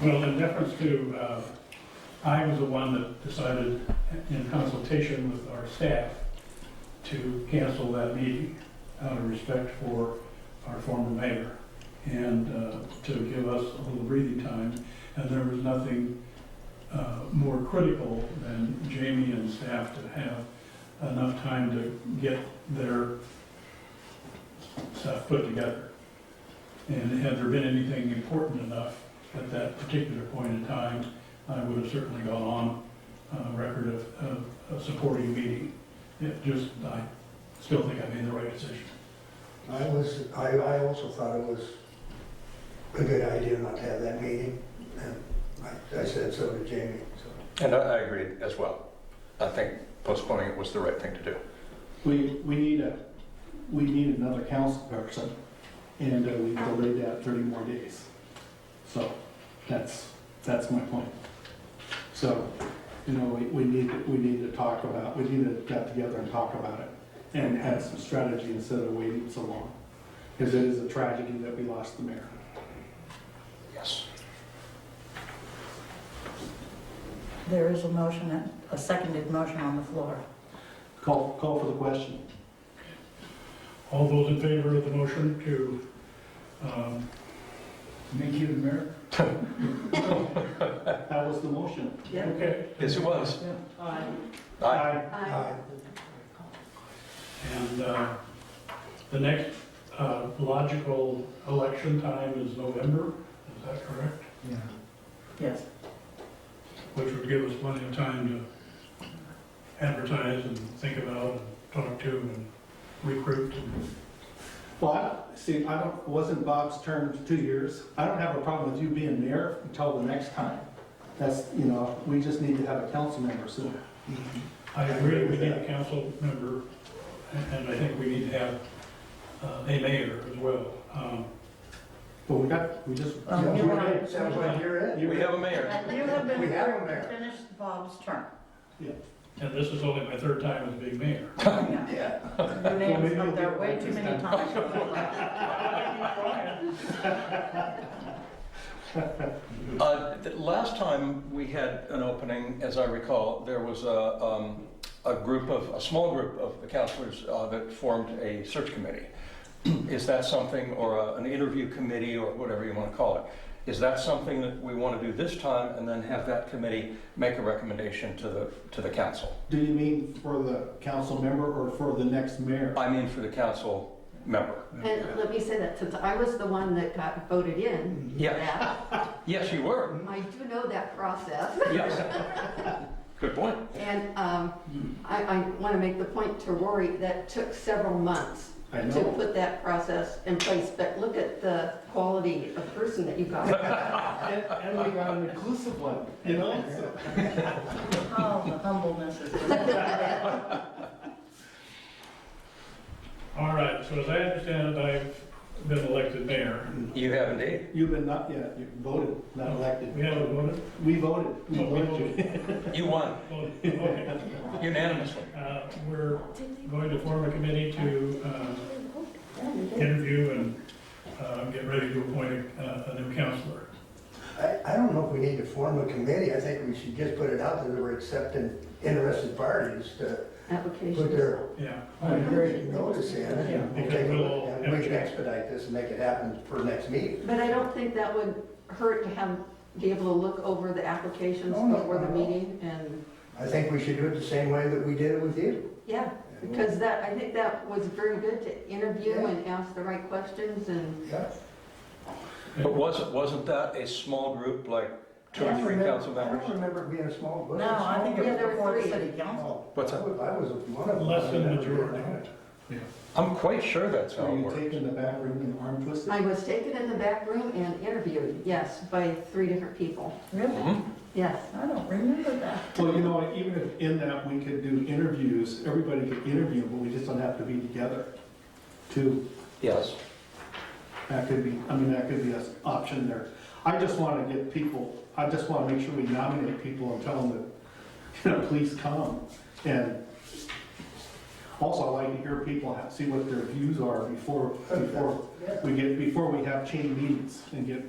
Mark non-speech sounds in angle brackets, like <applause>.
Well, in deference to, uh, I was the one that decided, in consultation with our staff, to cancel that meeting out of respect for our former mayor and uh, to give us a little breathing time. And there was nothing uh, more critical than Jamie and staff to have enough time to get their stuff put together. And had there been anything important enough at that particular point in time, I would have certainly gone on uh, record of- of of supporting the meeting. It just, I still think I made the right decision. I was, I, I also thought it was a good idea not to have that meeting, and I, I said so to Jamie, so. And I, I agree as well. I think postponing it was the right thing to do. We, we need a, we need another council person, and uh, we delayed that 30 more days. So that's, that's my point. So, you know, we, we need, we need to talk about, we need to get together and talk about it and have some strategy instead of waiting so long. Because it is a tragedy that we lost the mayor. Yes. There is a motion, and- a seconded motion on the floor. Call, call for the question. All those in favor of the motion to um, Thank you, Mayor. <laughs> That was the motion. Okay, Yes, it was. Aye. Aye. Aye. and uh, the next uh, logical election time is November, is that correct? Yes. Which would give us plenty of time to advertise and think about and talk to and recruit. and- Well, I, see, I don't, wasn't Bob's term two years? I don't have a problem with you being mayor until the next time. That's, you know, we just need to have a council member soon. I agree, we need a council member, and and I think we need to have uh, a mayor as well. Um, But we got, we just, Um, Sounds you like- are- Sounds like you're it. We have a mayor. And you have been We have him there. finished Bob's term. And this is only my third time as being mayor. Your Yeah. name's up there way too many <laughs> times. Uh, th- Last time we had an opening, as I recall, there was a, um, a group of, a small group of the counselors uh, that formed a search committee. Is that something, or a- an interview committee, or whatever you want to call it? Is that something that we want to do this time and then have that committee make a recommendation to the, to the council? do you mean for the council member or for the next mayor? I mean, for the council member. And let me say that since I was the one that got voted in, Yeah, that, yes, you were. Mm-hmm. I do know that process. Yes. Good point. And um, I, I want to make the point to Rory, that took several months I to know. put that process in place, but look at the quality of person that <laughs> you got. And, <laughs> and we got an inclusive one, you know? so- Oh, the humbleness <laughs> is. All right, so as I understand it, I've been elected mayor. You have indeed. You've been not, yeah, you voted, not elected. We haven't voted? We voted. We No, Oh, we voted you. You won Voted, okay. unanimously. Uh, We're going to form a committee to uh, interview and uh, get ready to appoint a a new counselor. I, I don't know if we need to form a committee, I think we should just put it out there that we're accepting interested parties to put Applications. their Yeah. notice in. and we'll take a look, And we can expedite this and make it happen for next meeting. But I don't think that would hurt to have, be able to look over the applications Oh, No, no, before the no, no. meeting and, I think we should do it the same way that we did it with you. yeah. Because that, I think that was very good to interview and ask the right questions and, Yeah. But wasn't, wasn't that a small group, like two or I three remember- council I members? don't remember it being a small, was it No, a I small think group? it was Yeah, there were before the three. city council. What's I that? was I was one of them. Less than I never majority. did it. I'm quite sure that's how Are it you works. taking the back room and arm twisted? I was taken in the back room and interviewed, yes, by three different people, Really? Mhm. yes. I don't remember that. Well, you know, even if in that we could do interviews, everybody could interview, but we just don't have to be together. Too, Yes. that could be, I mean, that could be an option there. I just want to get people, I just want to make sure we nominate people and tell them that, you know, please come. And also I like to hear people, have- see what their views are before, before we get, before we have chain meetings and get